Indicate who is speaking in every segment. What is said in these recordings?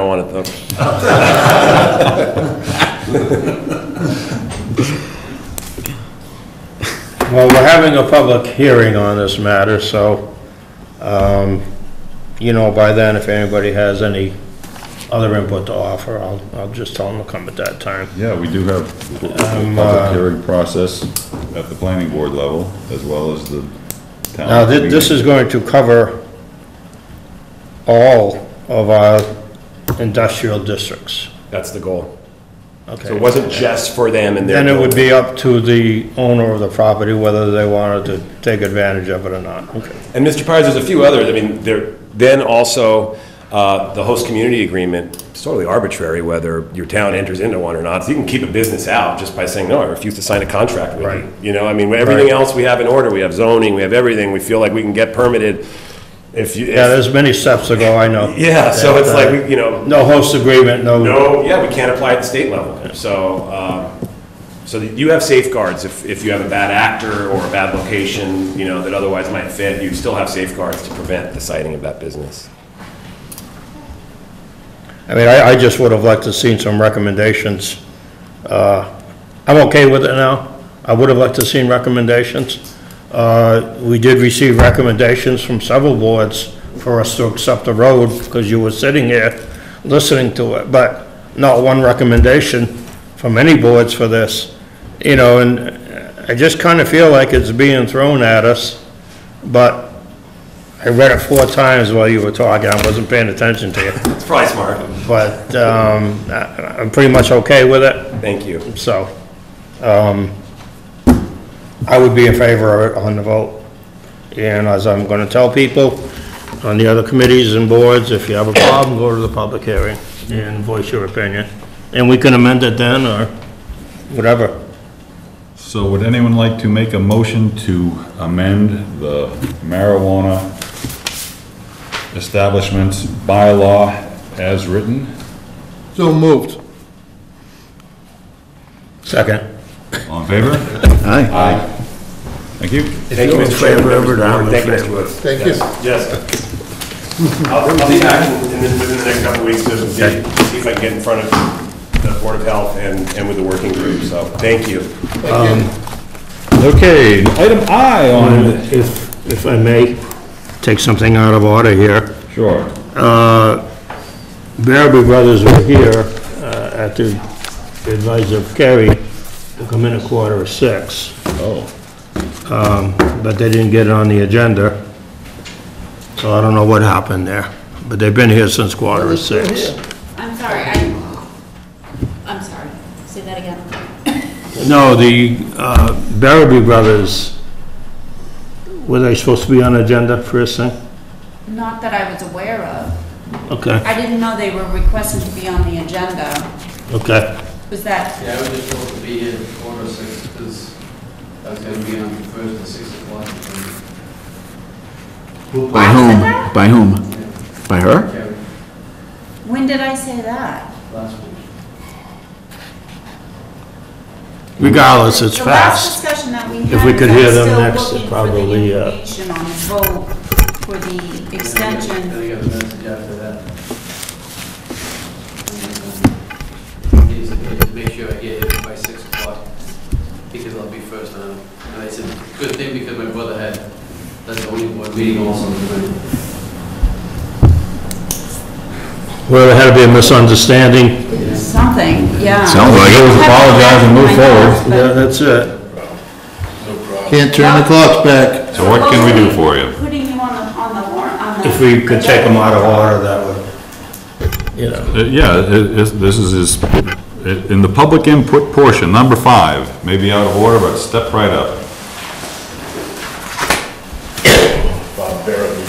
Speaker 1: I want it though.
Speaker 2: Well, we're having a public hearing on this matter, so, um, you know, by then, if anybody has any other input to offer, I'll, I'll just tell them to come at that time.
Speaker 3: Yeah, we do have a public hearing process at the planning board level, as well as the town.
Speaker 2: Now, thi- this
Speaker 3: meeting.
Speaker 2: is going to cover all of our industrial districts,
Speaker 1: That's the goal. So it
Speaker 2: okay?
Speaker 1: wasn't just for them and their.
Speaker 2: Then it would be up to the owner of the property whether they wanted to take advantage of it or not, okay?
Speaker 1: And Mr. Pires, there's a few others, I mean, there, then also, uh, the host community agreement, it's totally arbitrary whether your town enters into one or not, so you can keep a business out just by saying, no, I refuse to sign a contract with
Speaker 2: Right.
Speaker 1: you. You know, I mean, everything
Speaker 2: Right.
Speaker 1: else we have in order, we have zoning, we have everything, we feel like we can get permitted if you,
Speaker 2: Yeah,
Speaker 1: if-
Speaker 2: there's many steps to go, I know.
Speaker 1: yeah, so it's like, we- you know,
Speaker 2: No host agreement,
Speaker 1: no, yeah, we can't apply at the state level, so, um, so that you have safeguards if, if you have a bad actor or a bad location, you know, that otherwise might fit, you still have safeguards to prevent the sighting of that business.
Speaker 2: I mean, I, I just would have liked to seen some recommendations. Uh, I'm okay with it now. I would have liked to seen recommendations. Uh, We did receive recommendations from several boards for us to accept the road, because you were sitting here listening to it, but not one recommendation from any boards for this, you know, and I just kind of feel like it's being thrown at us, but I read it four times while you were talking, I wasn't paying attention to you
Speaker 1: It's probably smart.
Speaker 2: but um, I- I'm pretty much okay with it,
Speaker 1: Thank you.
Speaker 2: so um, I would be in favor of it on the vote. And as I'm going to tell people on the other committees and boards, if you have a problem, go to the public hearing and voice your opinion. And we can amend it then, or whatever.
Speaker 3: So would anyone like to make a motion to amend the marijuana establishments bylaw as written?
Speaker 4: So moved.
Speaker 2: Second.
Speaker 3: All in favor? Aye. Aye. Thank you.
Speaker 1: Thank you,
Speaker 4: you're in
Speaker 1: Mr. Chairman,
Speaker 4: favor of
Speaker 1: members of
Speaker 4: it,
Speaker 1: the
Speaker 4: I'm
Speaker 1: board.
Speaker 4: in
Speaker 1: Thank you, Mr.
Speaker 4: favor
Speaker 1: Woods.
Speaker 4: Thank you.
Speaker 1: Yes. I'll I'll be back in, in the- within the next couple of weeks to see see if I can get in front of the Board of Health and, and with the working group, so, thank you.
Speaker 3: Okay, item I on,
Speaker 2: If, if I may take something out of order here.
Speaker 3: sure.
Speaker 2: Baraboo Brothers were here uh, at the advice of Kerry to come in a quarter of six,
Speaker 3: Oh.
Speaker 2: but they didn't get it on the agenda. So I don't know what happened there, but they've been here since quarter of six.
Speaker 5: I'm sorry, I, I'm sorry, say that again.
Speaker 2: No, the uh, Baraboo Brothers, were they supposed to be on agenda first thing?
Speaker 5: Not that I was aware of.
Speaker 2: Okay,
Speaker 5: I didn't know they were requested to be on the agenda.
Speaker 2: okay,
Speaker 5: Was that,
Speaker 6: Yeah, I was just supposed to be here at quarter six, because I was gonna be on first at six o'clock.
Speaker 7: By whom? By whom?
Speaker 6: Yeah,
Speaker 7: By her?
Speaker 6: Karen,
Speaker 5: when did I say that?
Speaker 6: last week.
Speaker 2: regardless, it's
Speaker 5: The
Speaker 2: fast.
Speaker 5: last discussion that we had.
Speaker 2: If we could
Speaker 5: was I
Speaker 2: hear them
Speaker 5: still
Speaker 2: next,
Speaker 5: looking
Speaker 2: probably, uh,
Speaker 5: For the information on the vote for the
Speaker 6: Then
Speaker 5: extension.
Speaker 6: I got a message after that. And, um, He said, "Hey, just make sure I get here by six o'clock, because I'll be first on. And I said, good thing, because my brother had, that's the only board meeting also tonight.
Speaker 2: Well, there had to be a misunderstanding.
Speaker 5: Something, yeah.
Speaker 7: Sounds like it.
Speaker 3: Apologize and move forward.
Speaker 2: Yeah, that's it.
Speaker 4: Can't turn the clocks back.
Speaker 3: So what can we do for you?
Speaker 5: Putting you on the, on the warrant, on the.
Speaker 2: If we could take them out of order, that would, you know.
Speaker 3: Uh, Yeah, it- it's- this is, is- it- in the public input portion, number five, maybe out of order, but step right up.
Speaker 8: Bob Barrowby,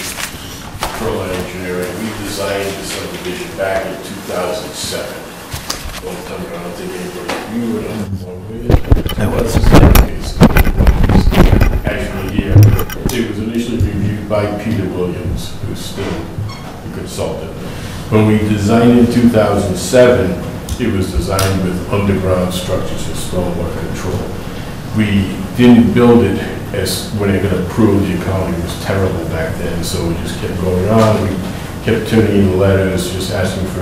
Speaker 8: Berlin Engineering, we designed the subdivision back in 2007. Don't tell me, I don't think anybody, you were on one, were you? I was. Actually, yeah, it was initially reviewed by Peter Williams, who's still a consultant. When we designed in 2007, it was designed with underground structures and stormwater control we didn't build it as, when it got approved, the economy was terrible back then, so we just kept going on, we kept tuning in letters, just asking for